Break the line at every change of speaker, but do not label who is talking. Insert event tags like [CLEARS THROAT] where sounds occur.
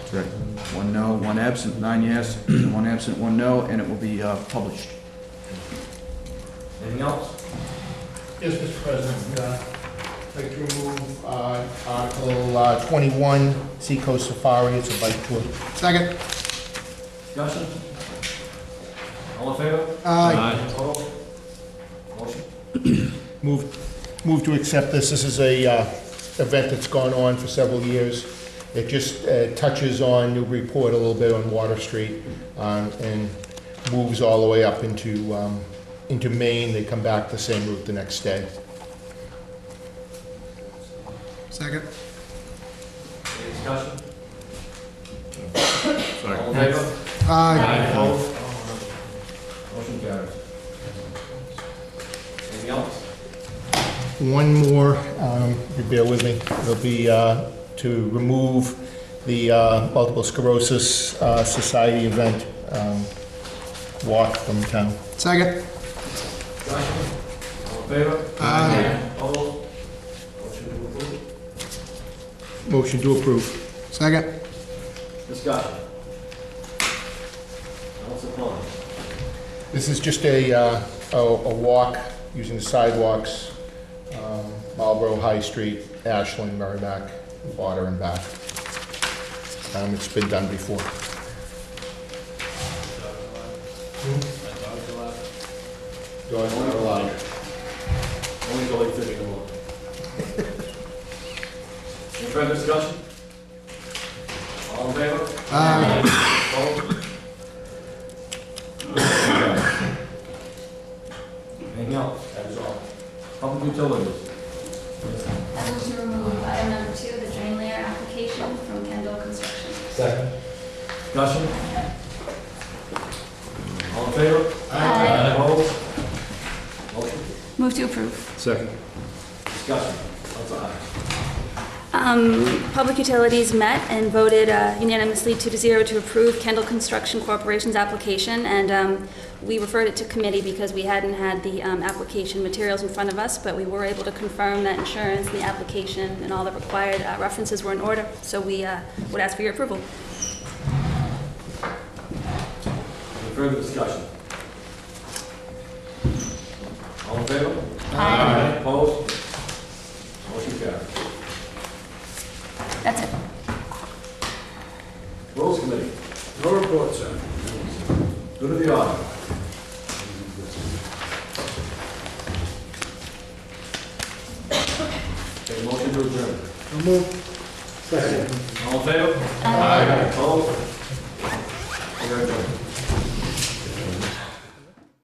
Right. One no, one absent, nine yes, [CLEARS THROAT] one absent, one no, and it will be uh, published.
Anything else?
Yes, Mr. President, uh, I'd like to remove uh, Article uh, 21, Seacoast Safari, it's a bike tour. Second.
Discussion? All in favor?
Uh,
Opposed? Motion?
Move, move to accept this. This is a uh, event that's gone on for several years. It just uh, touches on Newburyport a little bit on Water Street um, and moves all the way up into, um, into Maine. They come back the same route the next day.
Second.
Any discussion?
Sorry.
All in favor?
Aye.
Opposed? Motion carries. Anything else?
One more, um, if you bear with me, it'll be uh, to remove the uh, Multiple Sclerosis uh, Society event um, walk from town.
Second.
Discussion? All in favor?
Aye.
Opposed? Motion to approve?
Motion to approve.
Second.
Discussion? Council Con?
This is just a, uh, a a walk using the sidewalks, um, Marlboro High Street, Ashland, Merrimack, Water and back. Um, It's been done before. Dogs
not
not
allowed.
allowed.
Only go like fifty more. Any further discussion? All in favor? Opposed? Anything else? That is all. Public utilities.
I move to remove item number two, the drain layer application from Kendall Construction.
Discussion? All in favor?
Aye.
Opposed? Motion?
Move to approve.
Second.
Discussion? Council Con?
Um, Public Utilities met and voted uh, unanimously two to zero to approve Kendall Construction Corporation's application, and um, we referred it to committee because we hadn't had the um, application materials in front of us, but we were able to confirm that insurance, and the application, and all the required uh, references were in order, so we uh, would ask for your approval.
Any further discussion? All in favor?
Aye.
Opposed? Motion carries.
That's it.
Rules Committee, no report, sir. Go to the order. Take a motion to adjourn. Second. All in favor? Aye. Opposed? We are adjourned.